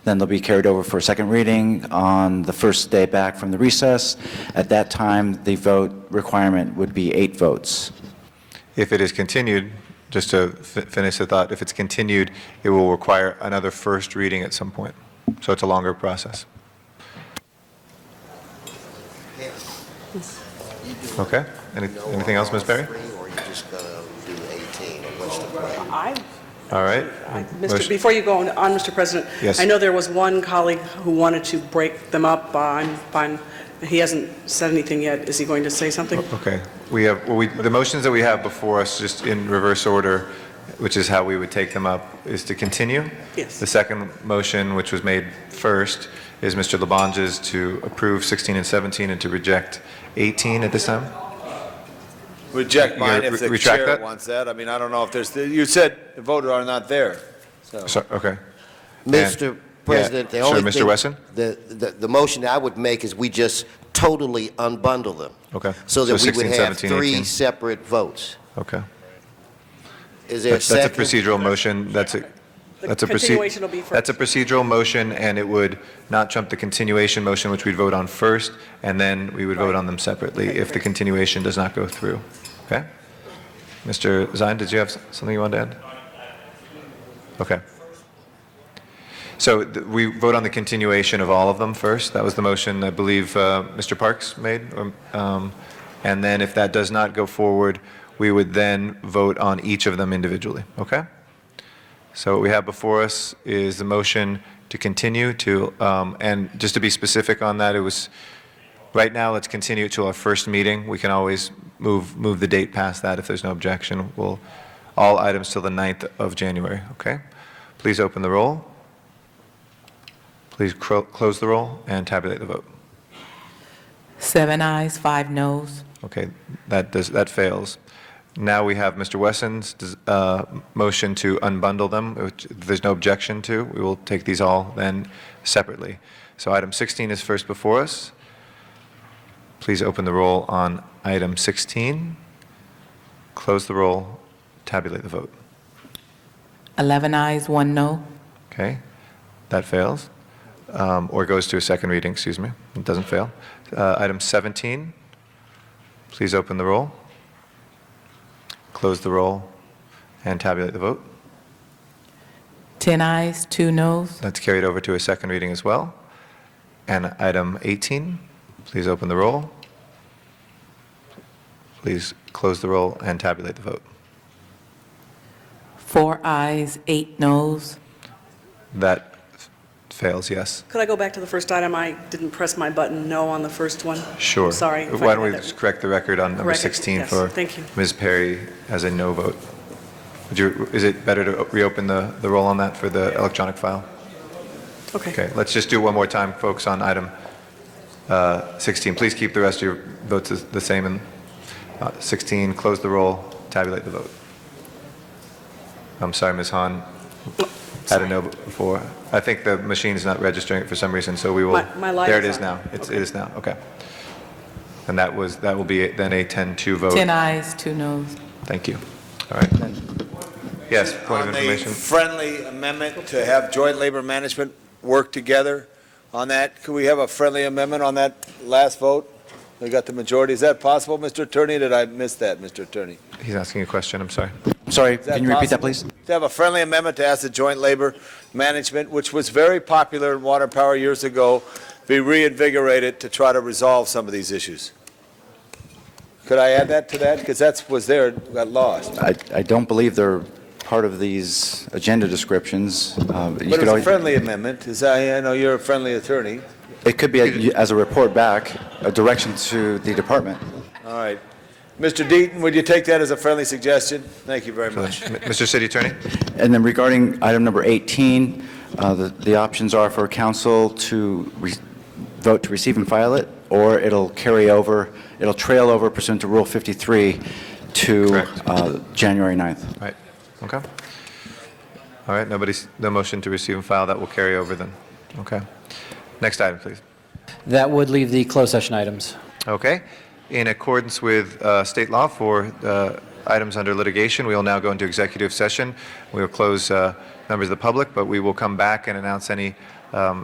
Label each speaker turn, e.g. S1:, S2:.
S1: Then they'll be carried over for a second reading on the first day back from the recess. At that time, the vote requirement would be eight votes.
S2: If it is continued, just to fi- finish the thought, if it's continued, it will require another first reading at some point. So it's a longer process. Okay? Any- Anything else, Ms. Berry?
S3: Or you just gonna do 18, or what's the plan?
S4: I,
S2: All right.
S4: Mr.,
S2: Mm-hmm. Motion-
S4: before you go on- on, Mr. President.
S2: Yes.
S4: I know there was one colleague who wanted to break them up. Uh, I'm fine, he hasn't said anything yet. Is he going to say something?
S2: Okay, we have, well, we, the motions that we have before us, just in reverse order, which is how we would take them up, is to continue.
S4: Yes.
S2: The second motion, which was made first, is Mr. Labange's to approve 16 and 17 and to reject 18 at this time?
S5: Reject
S2: You gotta
S5: mine if
S2: re-
S5: the
S2: retract
S5: chair
S2: that?
S5: wants that. I mean, I don't know if there's, you said the voter are not there, so.
S2: So- Okay,
S3: Mr. President, the
S2: Sure,
S3: only
S2: Mr.
S3: thing-
S2: Wesson?
S3: The, the, the motion I would make is we just totally unbundle them.
S2: Okay.
S3: So that
S2: So
S3: we
S2: 16,
S3: would have
S2: 17,
S3: three
S2: 18.
S3: separate votes.
S2: okay.
S3: Is there a
S2: That's that's a
S3: second?
S2: procedural motion, that's a,
S4: The
S2: that's a. proce-
S4: continuation will be
S2: That's a procedural motion, and it would not trump the continuation motion, which we'd vote on first, and then we would vote on them separately if the continuation does not go through. Okay? Mr. Zine, did you have s- something you wanted to add? Okay. So th- we vote on the continuation of all of them first. That was the motion I believe uh, Mr. Parks made. Um, um, And then if that does not go forward, we would then vote on each of them individually. Okay? So what we have before us is the motion to continue to, um, and just to be specific on that, it was, right now, let's continue it to our first meeting. We can always move, move the date past that if there's no objection. We'll, all items till the 9th of January, okay? Please open the roll. Please cro- close the roll and tabulate the vote.
S6: Seven ayes, five noes.
S2: Okay, that does, that fails. Now we have Mr. Wesson's uh, motion to unbundle them, which there's no objection to. We will take these all then separately. So item 16 is first before us. Please open the roll on item 16. Close the roll, tabulate the vote.
S6: 11 ayes, one no.
S2: Okay, that fails, Um, or goes to a second reading, excuse me. It doesn't fail. Uh, Item 17, please open the roll, close the roll, and tabulate the vote.
S6: 10 ayes, two noes.
S2: That's carried over to a second reading as well. And item 18, please open the roll, please close the roll, and tabulate the vote.
S6: Four ayes, eight noes.
S2: That f- fails, yes.
S4: Could I go back to the first item? I didn't press my button no on the first one.
S2: Sure.
S4: I'm Sorry. if I
S2: Why don't we
S4: had that-
S2: just correct the record on number
S4: Correct it,
S2: 16
S4: yes,
S2: for
S4: thank you.
S2: Ms. Perry as a no vote? Would you, is it better to reopen the, the roll on that for the electronic file?
S4: Okay.
S2: Okay, let's just do one more time, folks, on item uh, 16. Please keep the rest of your votes as- the same. And uh, 16, close the roll, tabulate the vote. I'm sorry, Ms. Han, had a no before. I think the machine's not registering it for some reason, so we will.
S4: My- my light
S2: There it
S4: is
S2: is
S4: on.
S2: now. It's- It is now, okay. And that was, that will be then a 10-2 vote.
S6: 10 ayes, two noes.
S2: Thank you. All right. Yes, point of information.
S5: On the friendly amendment to have joint labor management work together on that, could we have a friendly amendment on that last vote? We got the majority. Is that possible, Mr. Attorney? Did I miss that, Mr. Attorney?
S2: He's asking a question, I'm sorry.
S1: Sorry,
S5: Is that
S1: can you repeat that, please?
S5: possible? To have a friendly amendment to ask the joint labor management, which was very popular in water power years ago, be reinvigorated to try to resolve some of these issues. Could I add that to that? Because that's, was there, got lost.
S1: I I don't believe they're part of these agenda descriptions. Uh, you
S5: But
S1: could
S5: it was a
S1: always-
S5: friendly amendment, as I, I know you're a friendly attorney.
S1: It could be a- as a report back, a direction to the department.
S5: All right. Mr. Deaton, would you take that as a friendly suggestion? Thank you very much.
S2: M- Mr. City Attorney?
S1: And then regarding item number 18, uh, the the options are for council to re- vote to receive and file it, or it'll carry over, it'll trail over pursuant to Rule 53 to
S2: Correct.
S1: uh, January 9th.
S2: Right, okay. All right, nobody's, no motion to receive and file, that will carry over then. Okay. Next item, please.
S7: That would leave the closed session items.
S2: Okay. In accordance with uh, state law for uh, items under litigation, we will now go into executive session. We will close uh, members of the public, but we will come back and announce any um,